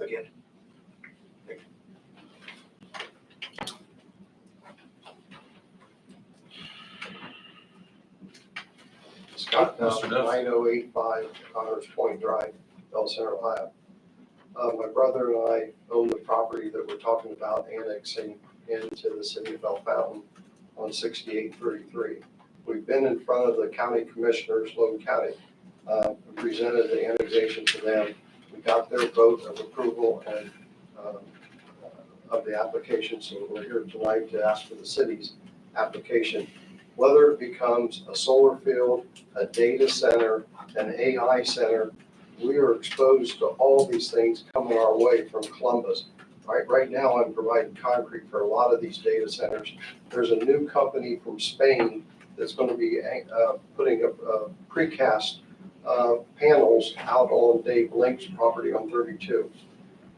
again. Scott Duff, Mr. Duff. nine oh eight five Connors Point Drive, Bell Center, Ohio. Uh, my brother and I own the property that we're talking about annexing into the city of Bell Fountain on sixty-eight thirty-three. We've been in front of the county commissioners, Logan County, uh, and presented the annexation to them. We got their vote of approval and, um, uh, of the application, so we're here tonight to ask for the city's application. Whether it becomes a solar field, a data center, an AI center, we are exposed to all these things coming our way from Columbus. Right, right now, I'm providing concrete for a lot of these data centers. There's a new company from Spain that's gonna be, uh, putting up, uh, precast uh, panels out on Dave Link's property on 32.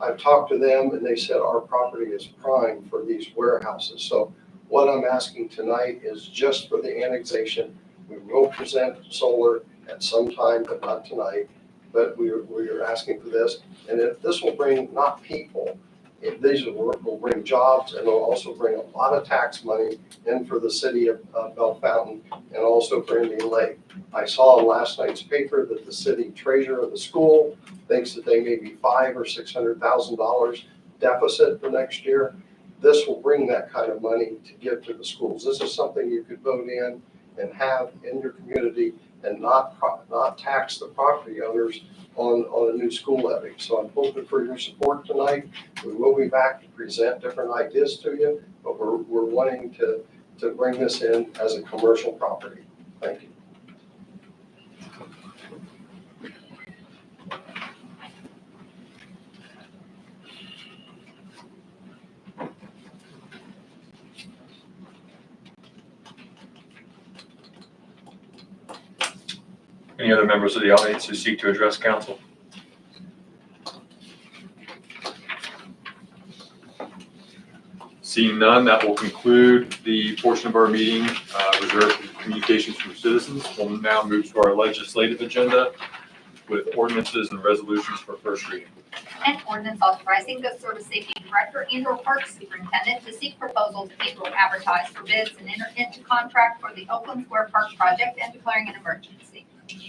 I've talked to them and they said our property is prime for these warehouses. So what I'm asking tonight is just for the annexation. We will present solar at some time, but not tonight. But we are, we are asking for this. And if this will bring not people, if these will, will bring jobs and it'll also bring a lot of tax money in for the city of, of Bell Fountain and also Brandy Lake. I saw in last night's paper that the city treasurer of the school thinks that they may be five or six hundred thousand dollars deficit for next year. This will bring that kind of money to give to the schools. This is something you could vote in and have in your community and not, pro- not tax the property owners on, on a new school levy. So I'm hoping for your support tonight. We will be back to present different ideas to you, but we're, we're wanting to, to bring this in as a commercial property. Thank you. Any other members of the audience who seek to address council? Seeing none, that will conclude the portion of our meeting uh, reserved for communications from citizens. We'll now move to our legislative agenda with ordinances and resolutions for first reading. An ordinance authorizing the Sort of Safety Director and or Park Superintendent to seek proposals and or advertise for bids and enter into contract for the Oakland Square Park project and declaring an emergency.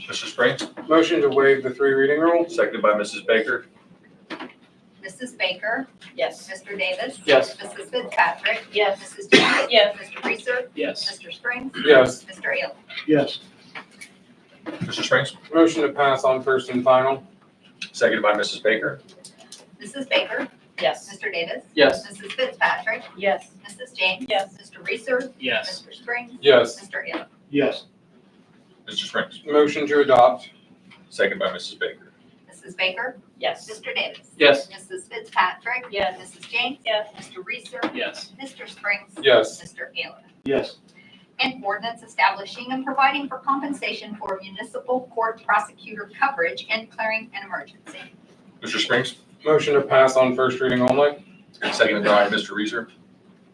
Mr. Spring, Motion to waive the three reading rule? seconded by Mrs. Baker. Mrs. Baker? Yes. Mr. Davis? Yes. Mrs. Fitzpatrick? Yes. Mrs. Jones? Yes. Mr. Reeser? Yes. Mr. Springs? Yes. Mr. Ailer? Yes. Mr. Spring, Motion to pass on first and final? seconded by Mrs. Baker. Mrs. Baker? Yes. Mr. Davis? Yes. Mrs. Fitzpatrick? Yes. Mrs. James? Yes. Mr. Reeser? Yes. Mr. Springs? Yes. Mr. Ailer? Yes. Mr. Spring, Motion to adopt? seconded by Mrs. Baker. Mrs. Baker? Yes. Mr. Davis? Yes. Mrs. Fitzpatrick? Yes. Mrs. James? Yes. Mr. Reeser? Yes. Mr. Springs? Yes. Mr. Ailer. Yes. An ordinance establishing and providing for compensation for municipal court prosecutor coverage and declaring an emergency. Mr. Spring, Motion to pass on first reading only? seconded by Mr. Reeser.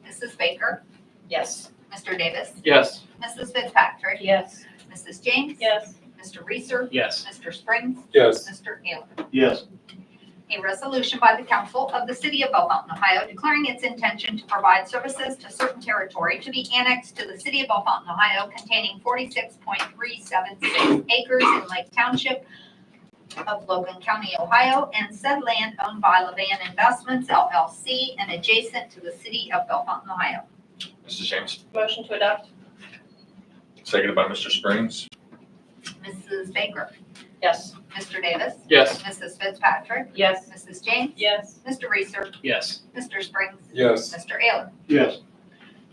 Mrs. Baker, Yes. Mr. Davis, Yes. Mrs. Fitzpatrick, Yes. Mrs. James. Yes. Mr. Reeser, Yes. Mr. Springs, Yes. Mr. Ailer. Yes. A resolution by the council of the city of Belle Fountain, Ohio, declaring its intention to provide services to certain territory to be annexed to the city of Belle Fountain, Ohio, containing forty-six point three seven six acres in Lake Township of Logan County, Ohio, and said land owned by Levan Investments LLC and adjacent to the city of Belle Fountain, Ohio. Mrs. James, Motion to adopt? seconded by Mr. Springs. Mrs. Baker, Yes. Mr. Davis, Yes. Mrs. Fitzpatrick, Yes. Mrs. James, Yes. Mr. Reeser, Yes. Mr. Springs, Yes. Mr. Ailer. Yes.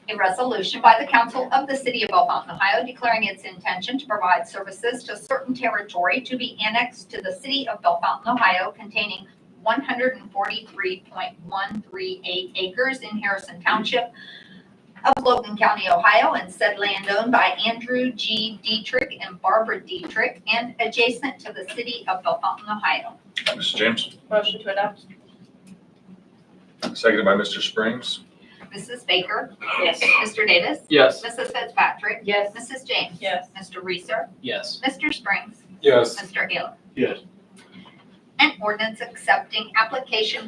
A resolution by the council of the city of Belle Fountain, Ohio, declaring its intention to provide services to certain territory to be annexed to the city of Belle Fountain, Ohio, containing one hundred and forty-three point one three eight acres in Harrison Township of Logan County, Ohio, and said land owned by Andrew G. Dietrich and Barbara Dietrich and adjacent to the city of Belle Fountain, Ohio. Mrs. James, Motion to adopt? seconded by Mr. Springs. Mrs. Baker, Yes. Mr. Davis, Yes. Mrs. Fitzpatrick, Yes. Mrs. James, Yes. Mr. Reeser, Yes. Mr. Springs, Yes. Mr. Ailer. Yes. An ordinance accepting application